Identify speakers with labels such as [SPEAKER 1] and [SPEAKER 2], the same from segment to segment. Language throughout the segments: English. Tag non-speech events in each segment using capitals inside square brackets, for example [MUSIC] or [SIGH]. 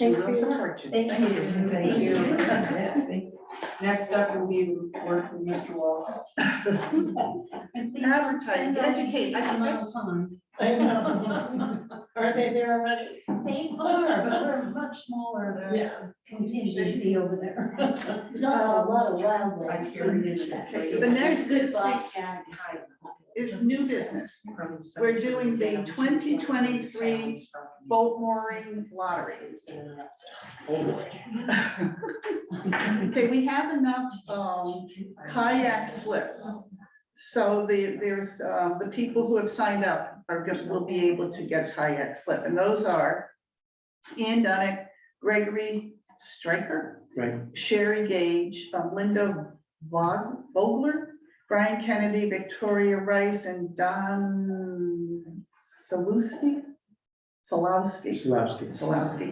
[SPEAKER 1] We
[SPEAKER 2] Thank
[SPEAKER 1] will
[SPEAKER 2] you.
[SPEAKER 1] support you.
[SPEAKER 2] Thank you.
[SPEAKER 1] Thank you.
[SPEAKER 2] Thank
[SPEAKER 1] Next up will be work with Mr. Wall.
[SPEAKER 2] Advertise, educate, I think that's-
[SPEAKER 3] I know. [LAUGHS] Are they there already?
[SPEAKER 4] They are, but we're much smaller than
[SPEAKER 3] Yeah.
[SPEAKER 4] contingency over there.
[SPEAKER 3] [LAUGHS]
[SPEAKER 4] [LAUGHS] There's also a lot of wildlife.
[SPEAKER 1] I hear it is.
[SPEAKER 2] The next is the- is
[SPEAKER 4] It's
[SPEAKER 2] new business, We're doing the 2023 boat mooring lottery. Okay, we have enough, um, kayak slips. So the, there's, uh, the people who have signed up are just, will be able to get kayak slip, and those are Ian Dunick, Gregory Stryker,
[SPEAKER 5] Right.
[SPEAKER 2] Sherry Gage, um, Linda Vog- Vogler, Brian Kennedy, Victoria Rice, and Don Salowski? Salowski. Solowski.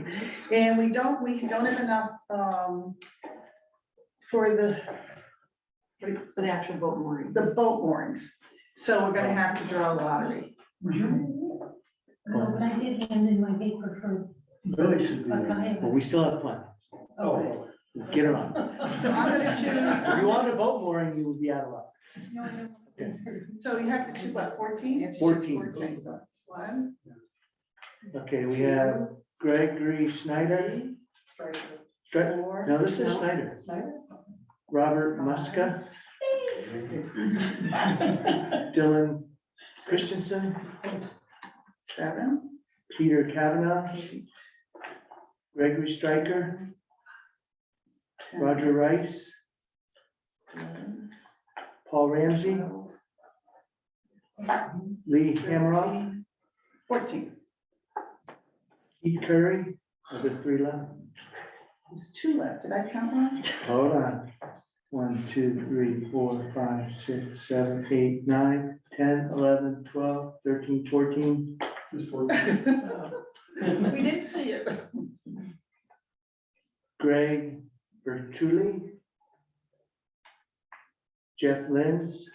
[SPEAKER 2] And we don't, we don't have enough um, for the,
[SPEAKER 1] For the actual boat mooring.
[SPEAKER 2] the boat moorings. So we're gonna have to draw a lottery.
[SPEAKER 4] But I did hand in my paper for.
[SPEAKER 5] Really should be,
[SPEAKER 4] Okay.
[SPEAKER 5] there, but we still have plenty. Oh. Get it on.
[SPEAKER 2] So I'm gonna
[SPEAKER 5] If
[SPEAKER 2] choose,
[SPEAKER 5] you wanted a boat mooring, you would be out of luck.
[SPEAKER 2] so you have to choose what, fourteen?
[SPEAKER 5] 14.
[SPEAKER 2] One,
[SPEAKER 5] Okay, we have Gregory Snyder, Stri-
[SPEAKER 2] four.
[SPEAKER 5] no, this is Snyder, Robert Muska, Dylan Christensen,
[SPEAKER 2] Seven.
[SPEAKER 5] Peter Kavanaugh, Gregory Stryker, Roger Rice,
[SPEAKER 2] Eleven,
[SPEAKER 5] Paul Ramsey,
[SPEAKER 2] twelve,
[SPEAKER 5] Lee Hamrock,
[SPEAKER 2] thirteen, Fourteen.
[SPEAKER 5] Keith Curry, are there three left?
[SPEAKER 2] There's two left. Did I count one?
[SPEAKER 5] Hold on. One, two, three, four, five, six, seven, eight, nine, ten, eleven, twelve, thirteen, fourteen.
[SPEAKER 2] [LAUGHS] We didn't see it.
[SPEAKER 5] Greg Bertulli. Jeff Lenz.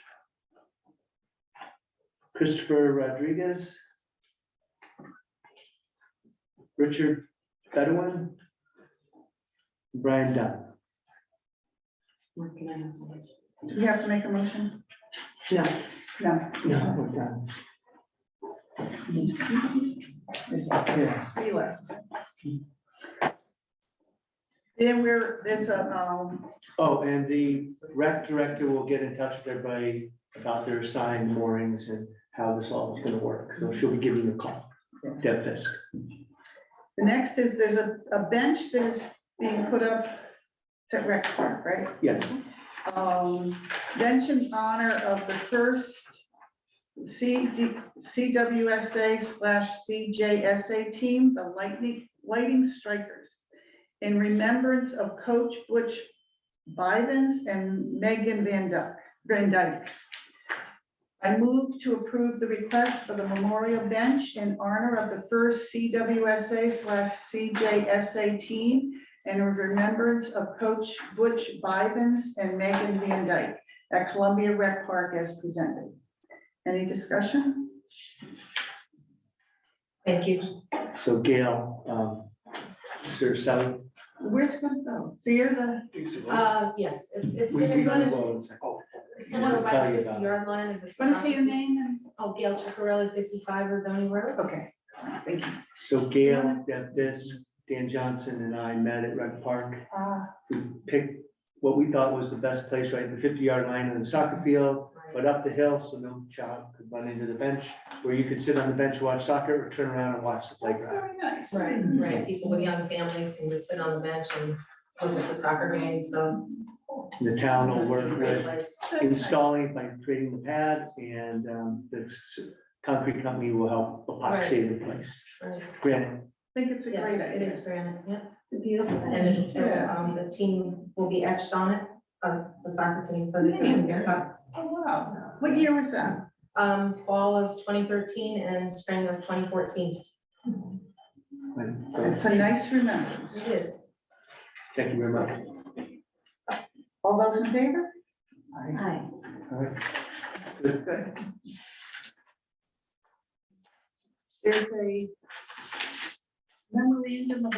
[SPEAKER 5] Christopher Rodriguez. Richard Bedouin. Brian Dunn.
[SPEAKER 2] Do we have to make a motion?
[SPEAKER 1] No.
[SPEAKER 2] No.
[SPEAKER 5] No, we're done.
[SPEAKER 2] There's
[SPEAKER 5] Yeah.
[SPEAKER 2] three left. Then we're, there's a, um,
[SPEAKER 5] Oh, and the rec director will get in touch with everybody about their assigned moorings and how this all is gonna work. So she'll be giving you a call. Deb Fisk.
[SPEAKER 2] The next is, there's a, a bench that is being put up at Rec Park, right?
[SPEAKER 5] Yes,
[SPEAKER 2] Um, bench in honor of the first CD, CWSA slash CJSA team, the Lightning, Lighting Strikers. In remembrance of Coach Butch Bivens and Megan Van Dyke, Van Dyke. I move to approve the request for the memorial bench in honor of the first CWSA slash CJSA team and in remembrance of Coach Butch Bivens and Megan Van Dyke at Columbia Rec Park as presented. Any discussion?
[SPEAKER 4] Thank you.
[SPEAKER 5] so Gail, um, Sir Sally.
[SPEAKER 2] Where's it gonna go? So you're the,
[SPEAKER 3] Uh, yes, it- it's
[SPEAKER 5] We,
[SPEAKER 3] gonna
[SPEAKER 5] we can
[SPEAKER 3] run,
[SPEAKER 5] go in a second.
[SPEAKER 3] it's gonna run
[SPEAKER 5] We'll tell
[SPEAKER 3] about
[SPEAKER 5] you
[SPEAKER 3] the
[SPEAKER 5] about
[SPEAKER 3] fifty
[SPEAKER 5] it.
[SPEAKER 3] yard line and the.
[SPEAKER 2] wanna see your name and,
[SPEAKER 3] Oh, Gail Chicarelli, fifty-five Rebellion Road.
[SPEAKER 2] okay, thank you.
[SPEAKER 5] So Gail, Deb Fisk, Dan Johnson and I met at Rec Park.
[SPEAKER 2] Uh,
[SPEAKER 5] We picked what we thought was the best place, right, the fifty yard line on the soccer field. but up the hill, so no child could run into the bench, where you could sit on the bench, watch soccer, or turn around and watch the
[SPEAKER 2] That's
[SPEAKER 5] playground.
[SPEAKER 2] very nice.
[SPEAKER 3] Right, right, people with young families can just sit on the bench and look at the soccer game, so.
[SPEAKER 5] The town will
[SPEAKER 3] it's a
[SPEAKER 5] work
[SPEAKER 3] great
[SPEAKER 5] with
[SPEAKER 3] place.
[SPEAKER 2] That's nice.
[SPEAKER 5] installing by creating the pad, and um, the s- concrete company will help epoxy the place.
[SPEAKER 3] Right.
[SPEAKER 5] Granite,
[SPEAKER 2] I think it's a
[SPEAKER 3] Yes,
[SPEAKER 2] great
[SPEAKER 3] it
[SPEAKER 2] idea.
[SPEAKER 3] is granite, yeah,
[SPEAKER 4] It's beautiful.
[SPEAKER 3] and it's, uh,
[SPEAKER 2] Yeah.
[SPEAKER 3] um, the team will be etched on it, uh, the soccer team for the
[SPEAKER 2] Yeah.
[SPEAKER 3] year.
[SPEAKER 2] Oh, wow. What year was that?
[SPEAKER 3] Um, fall of twenty thirteen and spring of twenty fourteen.
[SPEAKER 5] like, so,
[SPEAKER 2] It's a nice remembrance.
[SPEAKER 3] It is.
[SPEAKER 5] Thank you very much.
[SPEAKER 2] All those in favor?
[SPEAKER 4] Hi.
[SPEAKER 5] All right.
[SPEAKER 2] Good. There's a memorandum of